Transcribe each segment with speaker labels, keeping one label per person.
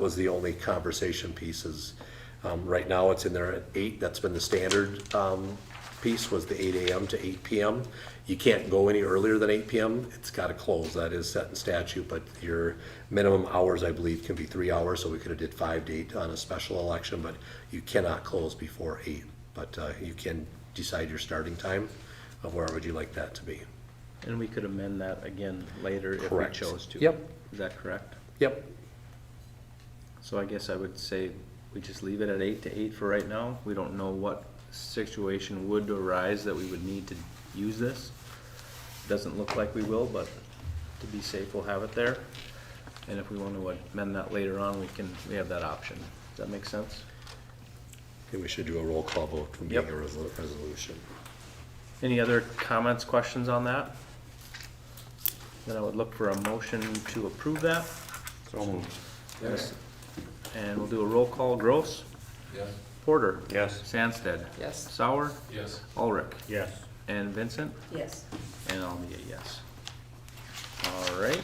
Speaker 1: was the only conversation pieces. Um, right now, it's in there at eight, that's been the standard, um, piece, was the eight AM to eight PM. You can't go any earlier than eight PM, it's gotta close, that is set in statute, but your minimum hours, I believe, can be three hours, so we could've did five to eight on a special election, but you cannot close before eight. But, uh, you can decide your starting time of where would you like that to be.
Speaker 2: And we could amend that again later if we
Speaker 1: Correct.
Speaker 2: chose to.
Speaker 1: Yep.
Speaker 2: Is that correct?
Speaker 1: Yep,
Speaker 2: So I guess I would say we just leave it at eight to eight for right now. We don't know what situation would arise that we would need to use this. Doesn't look like we will, but to be safe, we'll have it there. And if we want to amend that later on, we can, we have that option. Does that make sense?
Speaker 1: and we should do a roll call vote from being a
Speaker 2: Yep.
Speaker 1: resol- resolution.
Speaker 2: Any other comments, questions on that? Then I would look for a motion to approve that. Yes. And we'll do a roll call. Gross?
Speaker 3: Yes.
Speaker 2: Porter?
Speaker 1: Yes.
Speaker 2: Sandsted?
Speaker 4: Yes.
Speaker 2: Sauer?
Speaker 3: Yes.
Speaker 2: Ulrich?
Speaker 3: Yes.
Speaker 2: And Vincent?
Speaker 4: Yes.
Speaker 2: And I'll be a yes. All right.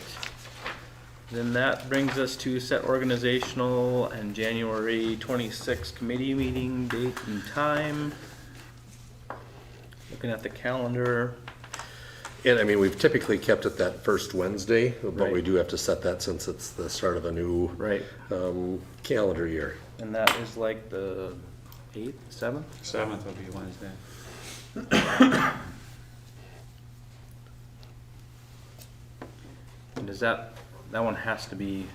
Speaker 2: Then that brings us to set organizational and January twenty-sixth committee meeting date and time. Looking at the calendar,
Speaker 1: And I mean, we've typically kept it that first Wednesday, but we
Speaker 2: Right.
Speaker 1: do have to set that since it's the start of a new
Speaker 2: right,
Speaker 1: um, calendar year.
Speaker 2: and that is like the eighth, seventh?
Speaker 3: Seventh will be Wednesday.
Speaker 2: And does that, that one has to be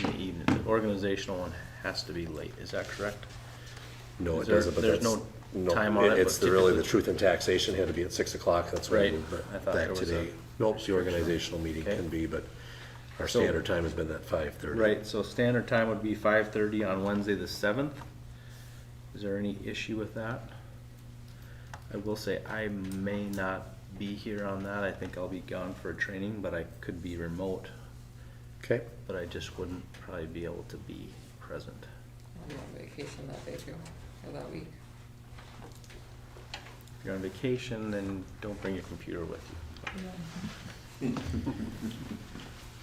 Speaker 2: in the evening, the organizational one has to be late, is that correct?
Speaker 1: No, it
Speaker 2: Is there-
Speaker 1: doesn't, but
Speaker 2: there's
Speaker 1: that's.
Speaker 2: no time on it,
Speaker 1: It's
Speaker 2: but
Speaker 1: the- really, the
Speaker 2: typically-
Speaker 1: truth in taxation had to be at six o'clock, that's why
Speaker 2: Right.
Speaker 1: we moved it
Speaker 2: I thought there
Speaker 1: that
Speaker 2: was a
Speaker 1: today. Nope, the organizational meeting
Speaker 2: Okay.
Speaker 1: can be, but our
Speaker 2: So-
Speaker 1: standard time has been that five thirty.
Speaker 2: Right, so standard time would be five thirty on Wednesday the seventh. Is there any issue with that? I will say I may not be here on that. I think I'll be gone for a training, but I could be remote,
Speaker 1: Okay,
Speaker 2: but I just wouldn't probably be able to be present.
Speaker 4: I'm on vacation that day too, or that week.
Speaker 2: If you're on vacation, then don't bring your computer with you.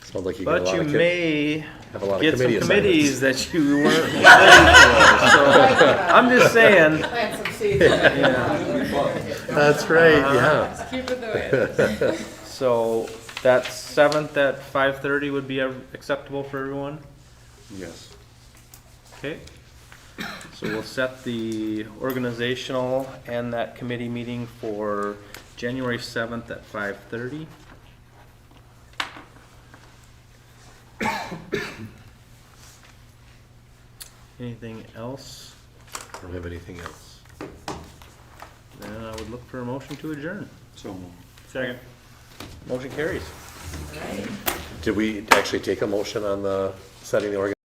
Speaker 1: sounds like you got a
Speaker 2: But
Speaker 1: lot
Speaker 2: you
Speaker 1: of, kid-
Speaker 2: may
Speaker 1: have a lot of
Speaker 2: get some
Speaker 1: committee assignments.
Speaker 2: committees that you weren't ready for, so I'm just saying.
Speaker 4: Plant some seeds.
Speaker 1: That's right,
Speaker 2: Uh-huh.
Speaker 1: yeah.
Speaker 4: Keep it the way.
Speaker 2: So that seventh at five thirty would be uh, acceptable for everyone?
Speaker 3: Yes.
Speaker 2: Okay. So we'll set the organizational and that committee meeting for January seventh at five thirty. Anything else?
Speaker 1: I don't have anything else.
Speaker 2: Then I would look for a motion to adjourn.
Speaker 3: So moved.
Speaker 2: Second. Motion carries.
Speaker 4: Right.
Speaker 1: Did we actually take a motion on the, setting the organization